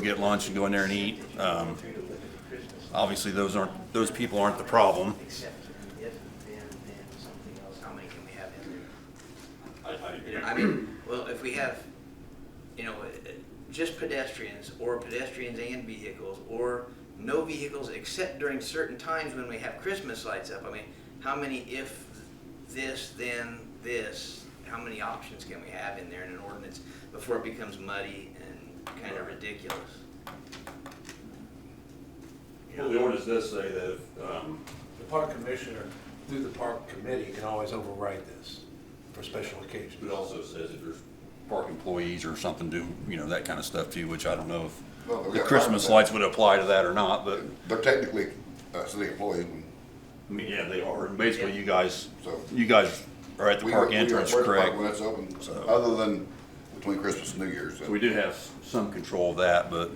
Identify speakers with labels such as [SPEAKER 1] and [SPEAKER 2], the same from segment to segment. [SPEAKER 1] get lunch and go in there and eat. Um, obviously, those aren't those people aren't the problem.
[SPEAKER 2] Except if, then, then something else, how many can we have in
[SPEAKER 3] I, I agree.
[SPEAKER 2] there? I mean, well, if we have, you know, uh, just pedestrians, or pedestrians and vehicles, or no vehicles except during certain times when we have Christmas lights up, I mean, how many if this, then this, how many options can we have in there in an ordinance before it becomes muddy and kind of ridiculous?
[SPEAKER 3] Well, the ordinance does say that, if, um,
[SPEAKER 4] The park commissioner, through the park committee, can always override this for special occasions.
[SPEAKER 3] it also says if there's,
[SPEAKER 1] Park employees or something do you know that kind of stuff too, which I don't know if
[SPEAKER 5] Well, we
[SPEAKER 1] the
[SPEAKER 5] got
[SPEAKER 1] Christmas
[SPEAKER 5] firemen.
[SPEAKER 1] lights would apply to that or not. But
[SPEAKER 5] They're technically uh, city employees. and
[SPEAKER 1] I mean, yeah, they are. And basically,
[SPEAKER 2] Yeah.
[SPEAKER 1] you guys,
[SPEAKER 5] So-
[SPEAKER 1] you guys are at the
[SPEAKER 5] we are-
[SPEAKER 1] park
[SPEAKER 5] we are-
[SPEAKER 1] entrance,
[SPEAKER 5] we're at the park
[SPEAKER 1] correct?
[SPEAKER 5] When it's open,
[SPEAKER 1] So-
[SPEAKER 5] other than between Christmas and New Year's.
[SPEAKER 1] So we do have some control of that, but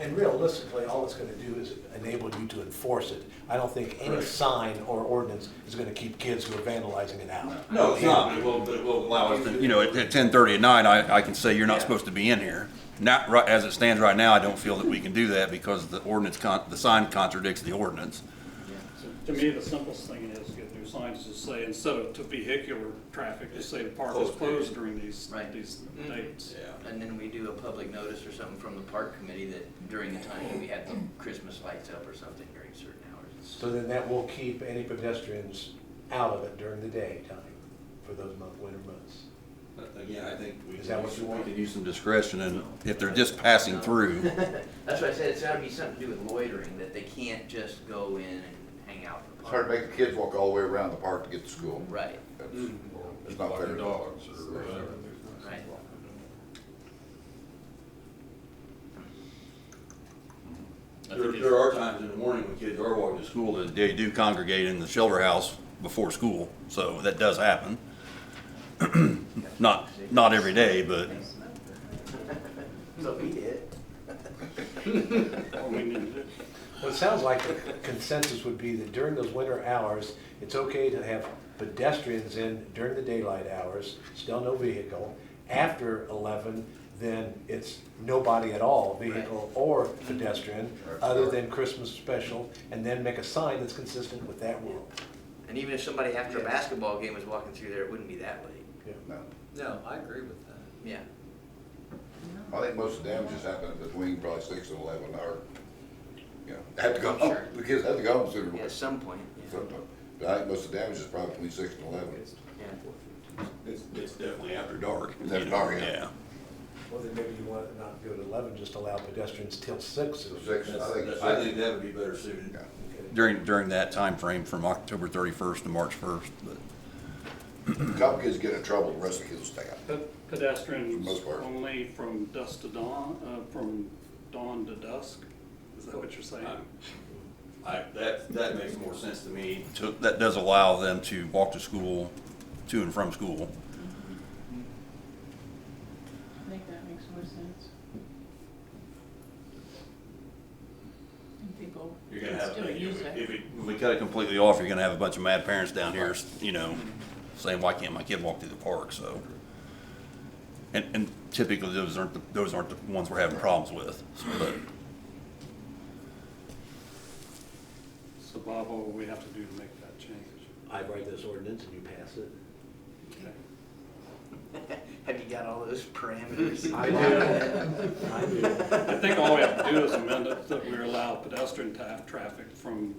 [SPEAKER 4] And realistically, all it's gonna do is enable you to enforce it. I don't think any sign or ordinance is gonna keep kids who are vandalizing it out.
[SPEAKER 1] no, it's not. But it will, but it will allow us to. You know, at, at ten thirty at night, I, I can say you're not supposed to be in here. Not right as it stands right now. I don't feel that we can do that because the ordinance con- the sign contradicts the ordinance.
[SPEAKER 6] To me, the simplest thing is, get new signs to say, instead of to vehicular traffic, just say the park is
[SPEAKER 3] Closed
[SPEAKER 6] closed during these,
[SPEAKER 2] Right.
[SPEAKER 6] these
[SPEAKER 2] Mhm.
[SPEAKER 6] dates.
[SPEAKER 3] yeah.
[SPEAKER 2] And then we do a public notice or something from the park committee that during the time we had the Christmas lights up or something during certain hours.
[SPEAKER 4] So then that will keep any pedestrians out of it during the daytime for those month, winter months.
[SPEAKER 1] Again, I think we
[SPEAKER 4] Is that what you want?
[SPEAKER 1] could use some discretion and if they're just passing through,
[SPEAKER 2] That's why I said it's gotta be something to do with loitering, that they can't just go in and hang out in the
[SPEAKER 5] It's hard
[SPEAKER 2] park.
[SPEAKER 5] to make the kids walk all the way around the park to get to school.
[SPEAKER 2] Right,
[SPEAKER 5] That's- It's not fair.
[SPEAKER 3] Dogs or whatever.
[SPEAKER 2] right.
[SPEAKER 1] there, there are times in the morning when kids are walking to school that they do congregate in the shelter house before school, so that does happen. Not, not every day, but
[SPEAKER 2] So we did.
[SPEAKER 6] Or we need to-
[SPEAKER 4] Well, it sounds like the consensus would be that during those winter hours, it's okay to have pedestrians in during the daylight hours, still no vehicle. After eleven, then it's nobody at all, vehicle or pedestrian, other than Christmas special, and then make a sign that's consistent with that rule.
[SPEAKER 2] And even if somebody after a
[SPEAKER 4] Yeah.
[SPEAKER 2] basketball game was walking through there, it wouldn't be that late.
[SPEAKER 4] Yeah.
[SPEAKER 5] No.
[SPEAKER 7] No, I agree with that.
[SPEAKER 2] Yeah.
[SPEAKER 5] I think most of the damages happen between probably six and eleven or, you know, have to go home.
[SPEAKER 2] Sure.
[SPEAKER 5] The kids have to go home sooner or
[SPEAKER 2] Yeah,
[SPEAKER 5] later.
[SPEAKER 2] At some point, yeah.
[SPEAKER 5] Sometime. But I think most of the damage is probably between six and eleven.
[SPEAKER 2] Yeah.
[SPEAKER 1] it's, it's definitely after dark.
[SPEAKER 5] It's after
[SPEAKER 1] you know,
[SPEAKER 5] dark, yeah.
[SPEAKER 1] Yeah.
[SPEAKER 4] Well, then maybe you want to not go to eleven, just allow pedestrians till six.
[SPEAKER 5] So Six, I think.
[SPEAKER 1] That's- I think that would be better suited
[SPEAKER 5] Yeah.
[SPEAKER 1] during, during that time frame from October thirty-first to March first, but.
[SPEAKER 5] Couple kids get in trouble, the rest of the kids stay out.
[SPEAKER 6] Pe- Pedestrians
[SPEAKER 5] most part.
[SPEAKER 6] only from dusk to dawn, uh, from dawn to dusk, is that what you're saying?
[SPEAKER 1] Um, Uh, I, that, that makes more sense to me. So that does allow them to walk to school, to and from school.
[SPEAKER 8] I think that makes more sense. And people
[SPEAKER 1] You're gonna
[SPEAKER 8] can
[SPEAKER 1] have,
[SPEAKER 8] still
[SPEAKER 1] you know,
[SPEAKER 8] use it.
[SPEAKER 1] if we, when we cut it completely off, you're gonna have a bunch of mad parents down here, you know, saying, why can't my kid walk through the park, so. And, and typically, those aren't, the those aren't the ones we're having problems with, so, but,
[SPEAKER 6] So Bob, what would we have to do to make that change?
[SPEAKER 4] I write this ordinance and you pass it.
[SPEAKER 6] Okay.
[SPEAKER 2] Have you got all those parameters?
[SPEAKER 4] I do. I do.
[SPEAKER 6] I think all we have to do is amend it that we allow pedestrian ta- traffic from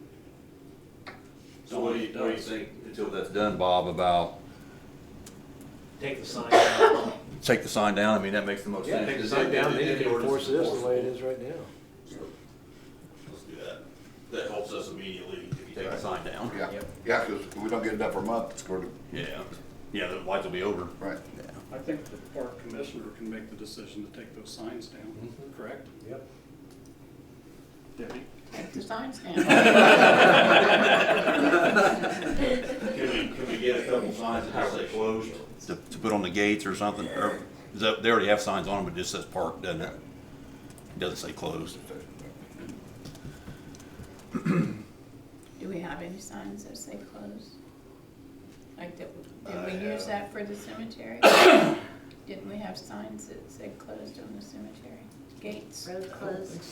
[SPEAKER 1] so what do you, what do you think until that's done, Bob, about?
[SPEAKER 7] Take the sign out.
[SPEAKER 1] Take the sign down, I mean, that makes the most
[SPEAKER 4] Yeah,
[SPEAKER 1] sense.
[SPEAKER 4] take the sign down, then you can enforce this the way it is right now.
[SPEAKER 1] Let's do that, that helps us immediately if you take the sign down.
[SPEAKER 5] Yeah, yeah, because if we don't get enough for a month, it's going to,
[SPEAKER 1] Yeah, yeah, the lights will be over.
[SPEAKER 5] right.
[SPEAKER 1] Yeah.
[SPEAKER 6] I think the park commissioner can make the decision to take those signs down, correct?
[SPEAKER 4] Yep.
[SPEAKER 6] Debbie?
[SPEAKER 8] Take the signs down.
[SPEAKER 1] Can we, can we get a couple signs that just say closed? To, to put on the gates or something, or, is that- they already have signs on them, but it just says park, doesn't it? It Doesn't say closed.
[SPEAKER 8] Do we have any signs that say closed? Like, did, did we use that for the cemetery? Didn't we have signs that said closed on the cemetery?
[SPEAKER 9] gates?
[SPEAKER 8] road closed.